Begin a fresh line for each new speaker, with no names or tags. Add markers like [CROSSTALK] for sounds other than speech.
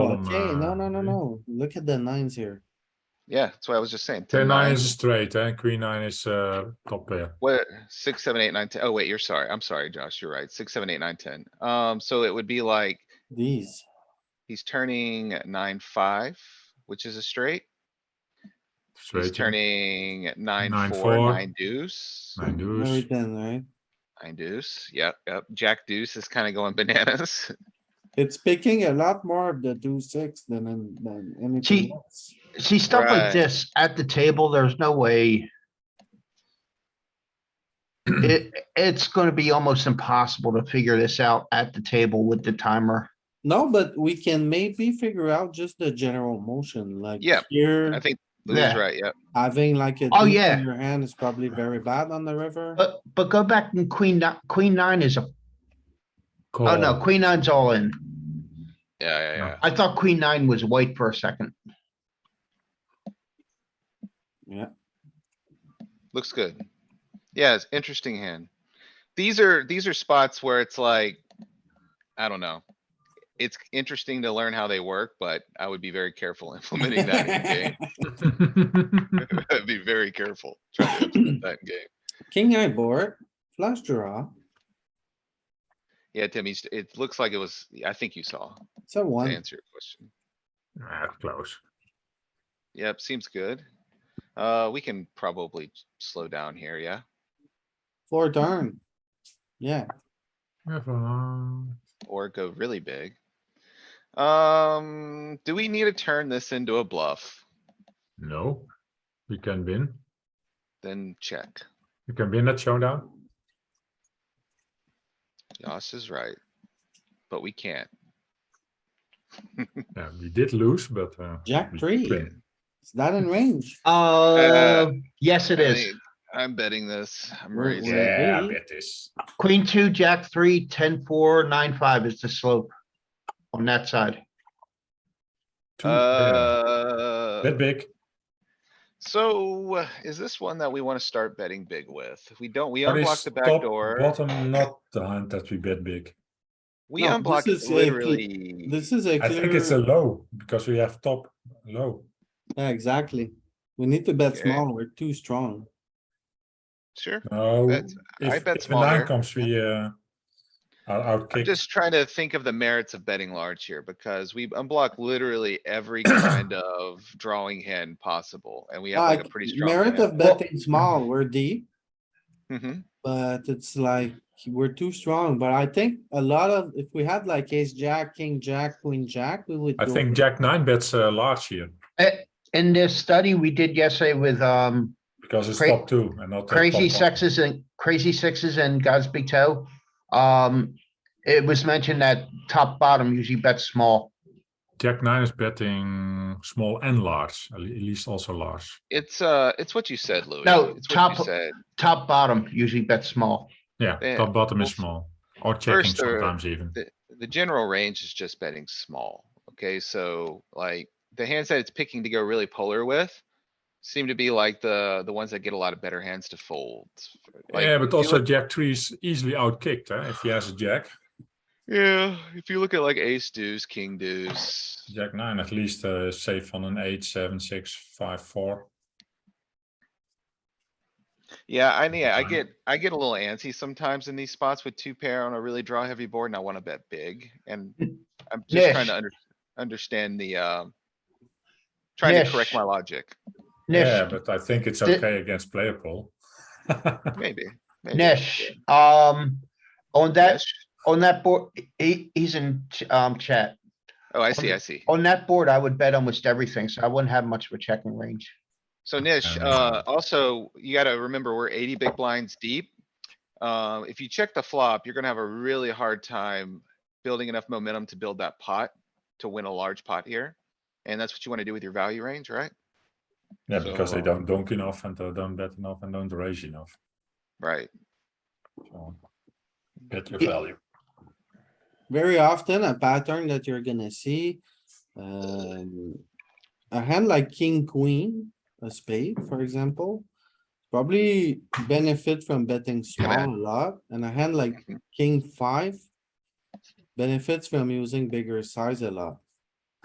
Oh,
Okay, no, no, no,
uh,
no. Look at the nines here.
Yeah, that's what I was just saying.
Ten nine is a
nines.
straight, eh? Queen nine is uh top pair.
What, six, seven, eight, nine, ten. Oh, wait, you're sorry. I'm sorry, Josh. You're right. Six, seven, eight, nine, ten. Um, so it would be like,
These,
he's turning nine, five, which is a straight.
Straight.
He's
eh?
turning nine,
Nine,
four,
four.
nine deuce,
Nine
very
deuce.
thin, right?
nine deuce. Yep, yep. Jack deuce is kinda going bananas. [LAUGHS]
It's picking a lot more of the two six than, in- than anything
Gee.
else.
See, stuff
Right.
like this at the table, there's no way. It, it's gonna be almost impossible to figure this out at the table with the timer.
No, but we can maybe figure out just the general motion, like
Yeah, I
here,
think Louis
Yeah.
right, yep.
having like a.
Oh,
deuce in
yeah.
Your hand is probably very bad on the river.
But, but go back and queen, ni- queen nine is a, oh no,
[LAUGHS]
nou,
Call.
queen nine's all in.
Yeah, yeah,
No.
yeah.
I thought queen nine was white for a second.
Looks good. Yeah, it's interesting hand. These are, these are spots where it's like, I don't know. It's interesting to learn how they work, but I would be very careful [LAUGHS] implementing
[LAUGHS]
that in game. [LAUGHS] I'd Be very careful trying to implement that in game.
King eye board, flush draw,
Yeah, Timmy, it looks like it was, I think you saw,
it's a
to
one.
answer your question.
Ah, close.
Yep, seems good. Uh, we can probably s- slow down here, yeah?
Four turn. Yeah,
Never mind.
Or go really big. Um, do we need to turn this into a bluff?
No, we can win.
Then check.
We can win that showdown.
Yoss is right. But we can't.
Yeah, we did lose, but uh,
jack
we
three.
win.
Is that in range?
Uh, yes, it
I
is.
think- I'm betting this. I'm
We're-
raising.
we're-
Yeah, I
Hey.
bet this.
Queen two, jack three, ten, four, nine, five is the slope on that side.
Two pair.
Uh,
That big.
so uh, is this one that we wanna start betting big with? If we don't, we
What is
unblock the back
top
door.
Bottom, not the hand that we bet big.
We
No, this
unblock
is a cle-
literally.
This is a
I think it's a
clear,
low because we have top low.
yeah, exactly. We need to bet
Okay.
small, we're too strong.
Sure.
No,
That's- I
if
bet
if a nine
smaller.
comes, we uh, I'll
I'm
outkick.
just trying to think of the merits of betting large here because we unblock literally
[COUGHS]
every kind of drawing hand possible and we have like a
Like,
pretty strong.
Merit Uh, of
hand.
betting small, we're deep,
Mhm.
but it's like, we're too strong, but I think a lot of, if we had like ace, jack, king, jack, queen, jack, we would.
I
go
think Jack nine bets uh, large here
Eh, in this study we did yesterday with, um,
because it's
Cra-
top two and not. uh,
crazy
top one.
sexes and crazy sixes and God's big toe. Um, it was mentioned that top bottom usually bets small.
Jack nine is betting small and large, at le- at least also large.
It's, uh, it's what you said, Louis.
No,
It's what you
top-
said.
Top bottom usually bets small.
Yeah,
Yeah,
top bottom is
well,
small or checking
first, uh,
sometimes even.
The, the general range is just betting small. Okay, so like the hands that it's picking to go really polar with seem to be like the, the ones that get a lot of better hands to fold. Like,
yeah,
if
but
you
also
look-
Jack three is easily outkicked eh? if he has a Jack.
Yeah, if you look at like ace deuce, king deuce,
Jack nine at least uh, is safe on an eight, seven, six, five, four.
Yeah, I mean, I
Fine.
get, I get a little antsy sometimes in these spots with two pair on a really draw heavy board and I wanna bet big
[LAUGHS]
and I'm just trying to
Nish.
under, understand the, um. Trying to correct
Nish.
[LAUGHS]
my logic,
Yeah,
Nish,
but I think it's
Thi-
okay against player pool.
maybe. maybe,
Nish, um, on that,
Nish?
on that board, he, he's in, ch- um, chat.
Oh, I see, I see.
On that board, I would bet almost everything, so I wouldn't have much of a checking range.
So Nish,
Um,
uh, also, you gotta remember, we're eighty big blinds deep. Uh, if you check the flop, you're gonna have a really hard time building enough momentum to build that pot, to win a large pot here. And that's what you wanna do with your value range, right?
yeah, because they
So,
don't donk enough and they don't bet enough and don't raise enough.
Right.
So bet your
Yeah.
value.
Very often a pattern that you're gonna see, um, a hand like king, queen, a spade, for example. Probably benefit from betting
Yeah, man.
small a lot and a hand like king five. Benefits from using bigger size a lot.